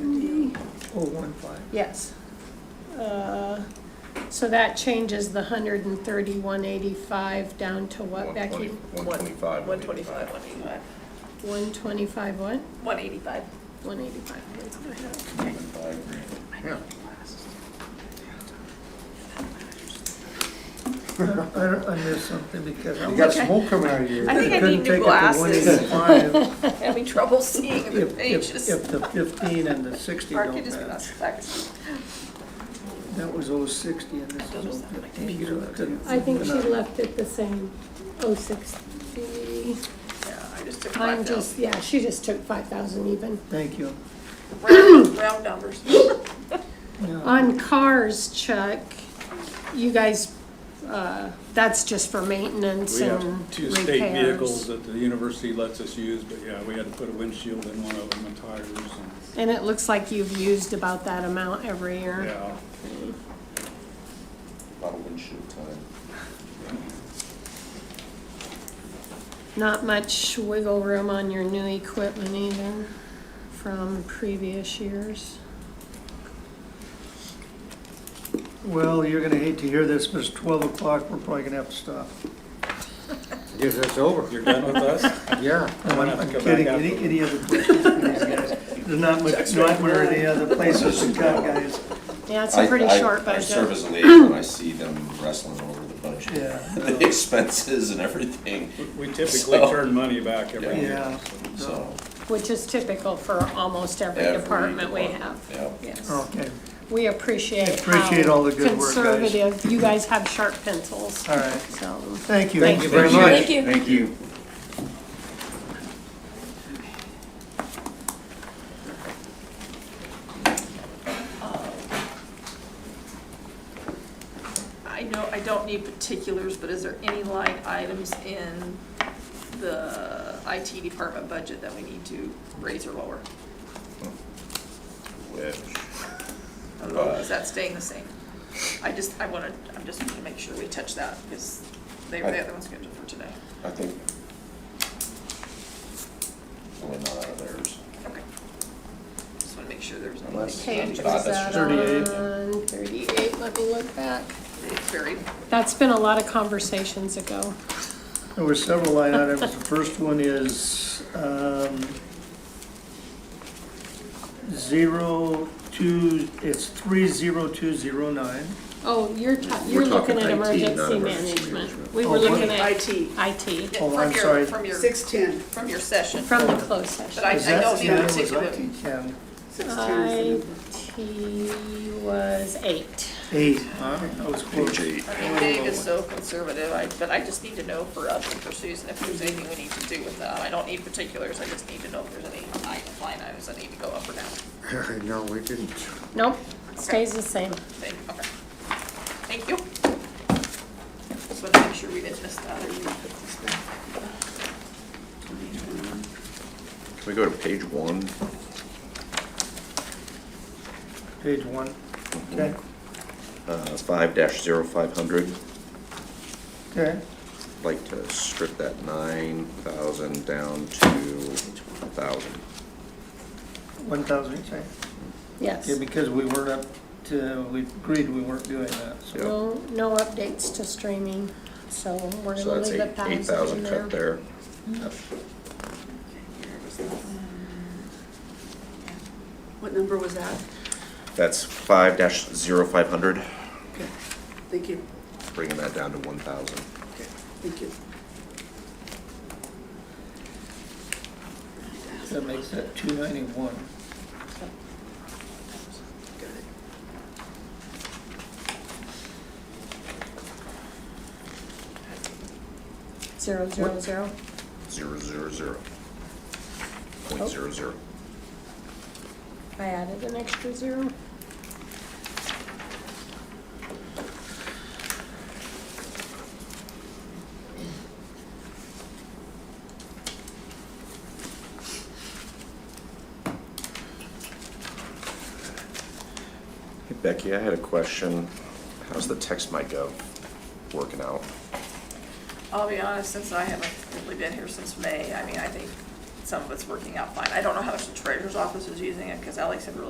Seventy, Oh, one five. yes. Uh, So that changes the hundred and thirty-one eighty-five down to what, Becky? One twenty-five. One twenty-five, one eighty-five, One twenty-five what? one eighty-five. One eighty-five. I, I missed something because You I'm. got smoke coming out of you. I think I couldn't need new take it to glasses. 185 Having trouble seeing the If, if, pages. if the fifteen and the sixty Mark, don't you just put us match. back. That was oh sixty and this Those is sound oh like fifteen. so I couldn't- I think she No. left it the same, oh sixty. Yeah, I just took I'm five down. just, yeah, she just took five thousand even. Thank you. Round round numbers. Yeah. On cars, Chuck, you guys, uh, that's just for maintenance We and have two repairs. state vehicles that the university lets us use, but yeah, we had to put a windshield in one of them and tires and, And it looks like you've used about that amount every year. yeah. Bottle windshield time. Not much wiggle room on your new equipment either from previous years. Well, you're gonna hate to hear this, but it's twelve o'clock, we're probably gonna have to stop. Yes, that's over. You're done with us? Yeah. No, gonna I'm have to I'm go back kidding, out. any, any other questions for these guys? There's not much, not where the other places to cut, guys. Yeah, it's a pretty I- I- short I serve budget. as a liaison, and I see them wrestling over the budget, Yeah, the expenses and everything, We typically So- turn money back every yeah. year. so. Which is typical for almost every every department we have. department, Yeah. Yes. Okay, We appreciate how Appreciate all the good work, guys. conservative, you guys have sharp pencils, all right. so. Thank you. Thank you very much. you. Thank you. I know, I don't need particulars, but is there any line items in the IT department budget that we need to raise or lower? I don't know, Is that staying the same? I just, I wanna, I'm just gonna make sure we touch that, because they were the other ones scheduled for today. I think. We're not out of theirs. Okay. Just wanna make sure there's no Unless- like, Page I was thought that that's Thirty-eight. on? Thirty-eight, let me look back. it's buried. That's been a lot of conversations ago. There were several line items. The first one is um, zero two, it's three zero two zero nine. Oh, you're, ta- you're looking at emergency management. We were Oh, looking at IT. IT Oh, From I'm your- sorry. From your, Six ten, from your session. from the closed But session. I, I Is that don't need a 10? Was particular. that 10? six ten is the number. IT was eight. Eight, huh? That was close. I mean, Dave is so conservative, I, but I just need to know for us and for Susan if there's anything we need to do with that. I don't need particulars, I just need to know if there's any item- line items that need to go up or down. No, we didn't. Nope, stays the same. Thank, okay. Thank you. Just wanna make sure we didn't miss that or we put this back. Can we go to page one? Page one. Okay, Uh, five dash zero five hundred. okay. Like to strip that nine thousand down to a thousand. One thousand, you say? Yes. Yeah, because we weren't up to, we agreed we weren't doing that, so. Yeah. No, no updates to streaming, so we're So gonna that's leave eight, a eight thousand in thousand there. Mm-hmm. cut there. What number was that? That's five dash zero five hundred, Okay, thank you, bringing that down to one thousand. thank you. That makes that two ninety-one. Zero, zero, zero. Zero zero zero. Point zero zero. I added an extra zero. Hey Becky, I had a question. How's the text might go working out? I'll be honest, since I haven't really been here since May, I mean, I think some of it's working out fine. I don't know how much the treasurer's office is using it, because Alex had really